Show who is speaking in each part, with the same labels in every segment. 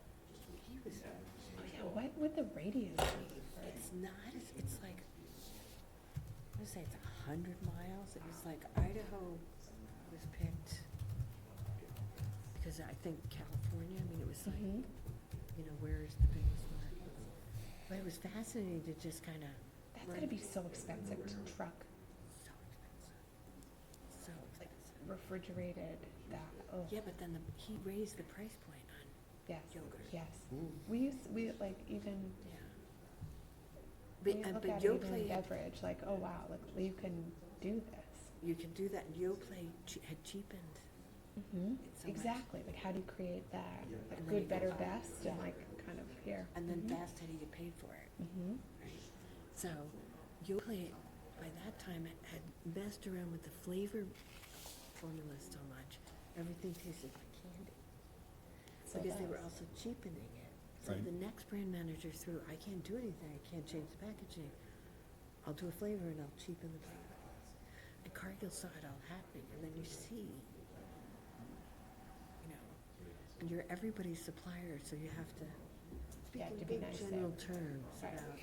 Speaker 1: Oh, the radio be?
Speaker 2: It's not, it's- it's like, I would say it's a hundred miles, it was like Idaho was picked, because I think California, I mean, it was like,
Speaker 1: Mhm.
Speaker 2: you know, where is the biggest market? But it was fascinating to just kind of,
Speaker 1: That's gotta be so expensive to truck
Speaker 2: so expensive, so expensive.
Speaker 1: refrigerated that, oh,
Speaker 2: Yeah, but then the, he raised the price point on
Speaker 1: yes,
Speaker 2: yogurt,
Speaker 1: yes. We used, we like even,
Speaker 2: yeah.
Speaker 1: we
Speaker 2: But, uh,
Speaker 1: look
Speaker 2: but
Speaker 1: at even
Speaker 2: Yoplait had
Speaker 1: beverage, like, oh wow, like you can do this.
Speaker 2: You can do that, and Yoplait che- had cheapened.
Speaker 1: hmm
Speaker 2: it so much.
Speaker 1: Exactly, like how do you create that, like
Speaker 2: And then you
Speaker 1: good, better,
Speaker 2: go,
Speaker 1: best, and
Speaker 2: yeah.
Speaker 1: like kind of here.
Speaker 2: And then Fast had to get paid for it,
Speaker 1: Mm-hmm,
Speaker 2: right? So Yoplait, by that time, had- had messed around with the flavor formula so much, everything tasted like candy.
Speaker 1: so
Speaker 2: Because they were
Speaker 1: that's-
Speaker 2: also cheapening it. So
Speaker 3: Right.
Speaker 2: the next brand manager threw, I can't do anything, I can't change the packaging. I'll do a flavor and I'll cheapen the product. And Cargill saw it all happening, and then you see, you know, and you're everybody's supplier, so you have to speak
Speaker 1: Yeah,
Speaker 2: in
Speaker 1: to be
Speaker 2: big
Speaker 1: nice there.
Speaker 2: general terms
Speaker 1: Right.
Speaker 2: about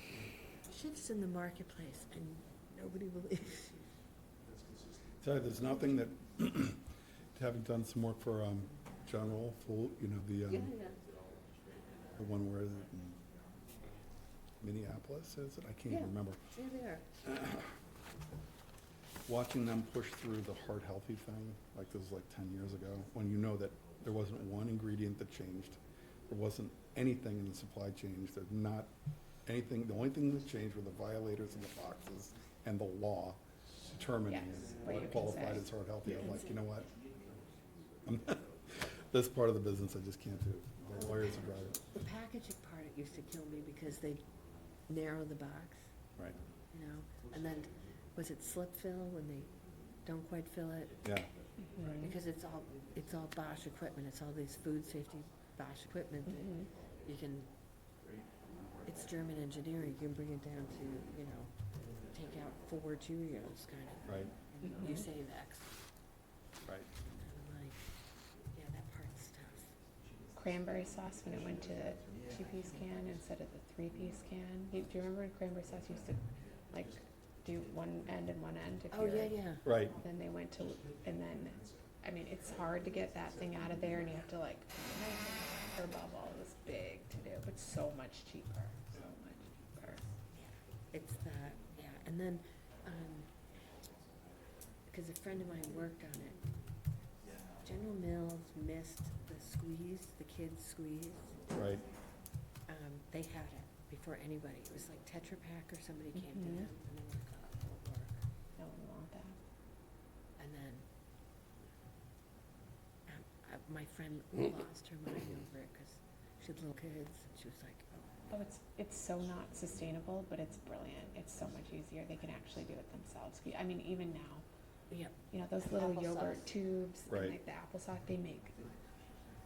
Speaker 2: shifts in the marketplace, and nobody believes you.
Speaker 3: Tell you, there's nothing that, having done some work for um, John Wolf, who, you know, the, um, the one where the- mm, Minneapolis is it? I can't
Speaker 2: Yeah.
Speaker 3: even remember.
Speaker 2: There they are.
Speaker 3: Watching them push through the heart healthy thing, like this was like ten years ago, when you know that there wasn't one ingredient that changed. There wasn't anything in the supply chain, there's not anything, the only thing that changed were the violators and the boxes and the law determining
Speaker 1: Yes, what you
Speaker 3: what
Speaker 1: can
Speaker 3: qualified
Speaker 1: say.
Speaker 3: as heart healthy. I'm like, you know what? I'm not- This part of the business I just can't do. The lawyers are driving,
Speaker 2: The packaging part, it used to kill me because they narrow the box.
Speaker 3: right,
Speaker 2: you know, and then, was it slip fill when they don't quite fill it?
Speaker 3: yeah.
Speaker 1: Mm-hmm.
Speaker 2: Because it's all, it's all Bosch equipment, it's all these food safety Bosch equipment
Speaker 1: Mhm.
Speaker 2: that you can, it's German engineering, you can bring it down to, you know, take out four Cheerios kind of.
Speaker 3: Right,
Speaker 2: and
Speaker 1: Mm-hmm.
Speaker 2: You save X,
Speaker 3: right.
Speaker 2: and I'm like, yeah, that part's tough.
Speaker 1: Cranberry sauce when it went to two piece can instead of the three piece can. You, do you remember when cranberry sauce used to like do one end and one end? If
Speaker 2: Oh,
Speaker 1: you're-
Speaker 2: yeah, yeah,
Speaker 3: Right,
Speaker 1: Then they went to, and then, I mean, it's hard to get that thing out of there, and you have to like, her bubble is big to do, but so much cheaper, so much cheaper.
Speaker 2: it's that, yeah, and then, um, cause a friend of mine worked on it, General Mills missed the squeeze, the kids squeeze.
Speaker 3: right,
Speaker 2: Um, they had it before anybody. It was like Tetra Pak or somebody came to
Speaker 1: Mhm.
Speaker 2: them and they were like, oh, it'll work.
Speaker 1: No one want that.
Speaker 2: And then um, uh, my friend lost her mind over it because she had little kids and she was like, oh,
Speaker 1: Oh, it's it's so not sustainable, but it's brilliant. It's so much easier. They can actually do it themselves. I mean, even now,
Speaker 2: yeah,
Speaker 1: you know, those little yogurt
Speaker 2: Applesauce.
Speaker 1: tubes
Speaker 3: Right.
Speaker 1: and like the applesauce, they make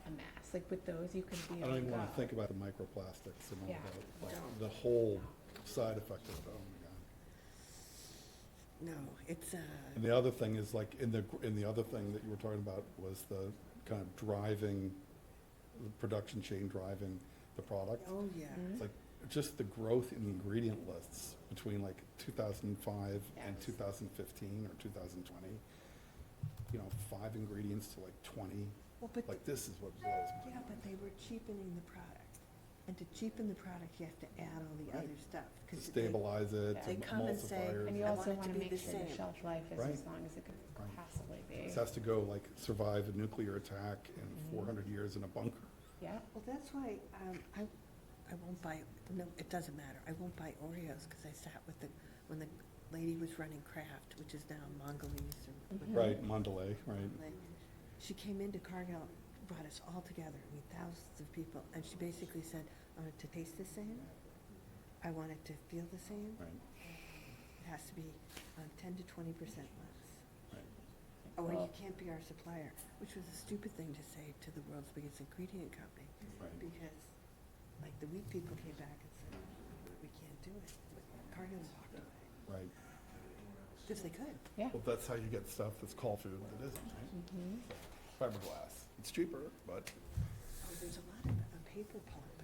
Speaker 1: a mess. Like with those, you can be.
Speaker 3: I don't even
Speaker 1: like,
Speaker 3: wanna
Speaker 1: oh,
Speaker 3: think about the microplastics and all
Speaker 1: Yeah.
Speaker 3: that, like, the whole side effect of it, oh my god.
Speaker 2: no, it's, uh,
Speaker 3: And the other thing is like, in the, in the other thing that you were talking about was the kind of driving, the production chain driving the product.
Speaker 2: oh, yeah.
Speaker 3: It's like, just the growth in the ingredient lists between like two thousand and five and
Speaker 2: Yes.
Speaker 3: two thousand fifteen or two thousand twenty. You know, five ingredients to like twenty,
Speaker 2: Well, but,
Speaker 3: like this is what blows me.
Speaker 2: yeah, but they were cheapening the product. And to cheapen the product, you have to add all the
Speaker 3: Right.
Speaker 2: other stuff.
Speaker 3: To
Speaker 2: 'cause they-
Speaker 3: stabilize it,
Speaker 1: They
Speaker 3: to
Speaker 2: come and say,
Speaker 3: emulsifiers.
Speaker 1: And you
Speaker 2: I want
Speaker 1: also
Speaker 2: it to
Speaker 1: want to
Speaker 2: be
Speaker 1: make
Speaker 2: the
Speaker 1: sure the
Speaker 2: same.
Speaker 1: shelf life is
Speaker 3: Right.
Speaker 1: as long as it could
Speaker 3: Right.
Speaker 1: possibly be.
Speaker 3: This has to go like survive a nuclear attack and four hundred years in a bunker.
Speaker 1: Yeah.
Speaker 2: Well, that's why, um, I, I won't buy, no, it doesn't matter, I won't buy Oreos, cause I sat with the, when the lady was running Kraft, which is now Mongolese or.
Speaker 1: Mhm.
Speaker 2: whatever,
Speaker 3: Right, Mandalay, right,
Speaker 2: like, She came into Cargill, brought us all together, I mean, thousands of people, and she basically said, I want it to taste the same, I want it to feel the same,
Speaker 3: right,
Speaker 2: it has to be, um, ten to twenty percent less.
Speaker 3: right.
Speaker 2: Or you
Speaker 1: Well-
Speaker 2: Oh, can't be our supplier, which was a stupid thing to say to the world's biggest ingredient company.
Speaker 3: Right.
Speaker 2: Because, like, the wheat people came back and said, we can't do it. Cargill walked away,
Speaker 3: Right.
Speaker 2: because they could.
Speaker 1: Yeah. Mm-hmm.
Speaker 3: Well, that's how you get stuff that's called food that isn't, right? Fiberglass. It's cheaper, but
Speaker 2: Oh, There's a lot of uh, paper pulp